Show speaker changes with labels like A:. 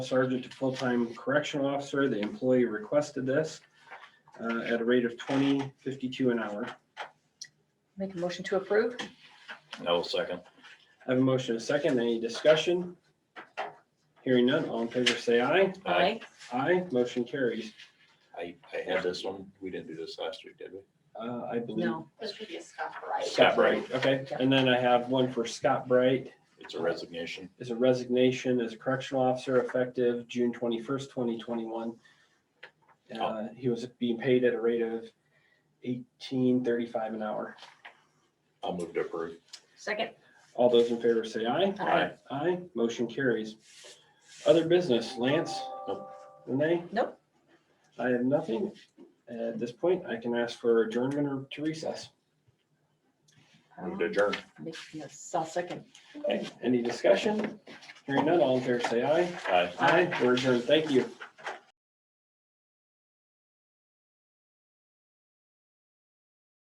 A: sergeant to full-time correctional officer. The employee requested this uh, at a rate of twenty fifty-two an hour.
B: Make a motion to approve?
C: No second.
A: I have a motion, and a second. Any discussion? Hearing none, all in favor say aye.
C: Aye.
A: Aye, motion carries.
C: I, I had this one. We didn't do this last week, did we?
A: Uh, I believe.
B: No.
D: Those could be a Scott Wright.
A: Scott Bright, okay.
B: Yeah.
A: And then I have one for Scott Bright
C: It's a resignation.
A: is a resignation as a correctional officer effective June twenty-first, twenty twenty-one. Uh, he was being paid at a rate of eighteen thirty-five an hour.
C: I'll move to approve.
B: Second?
A: All those in favor say aye.
C: Aye.
A: Aye, motion carries. Other business, Lance?
C: Nope.
A: Renee?
B: Nope.
A: I have nothing. At this point, I can ask for adjournment or to recess.
C: Move to adjourn.
B: Make- yes, I'll second.
A: Okay, Any discussion? Hearing none, all in favor say aye.
C: Aye.
A: Aye, we're adjourned. Thank you.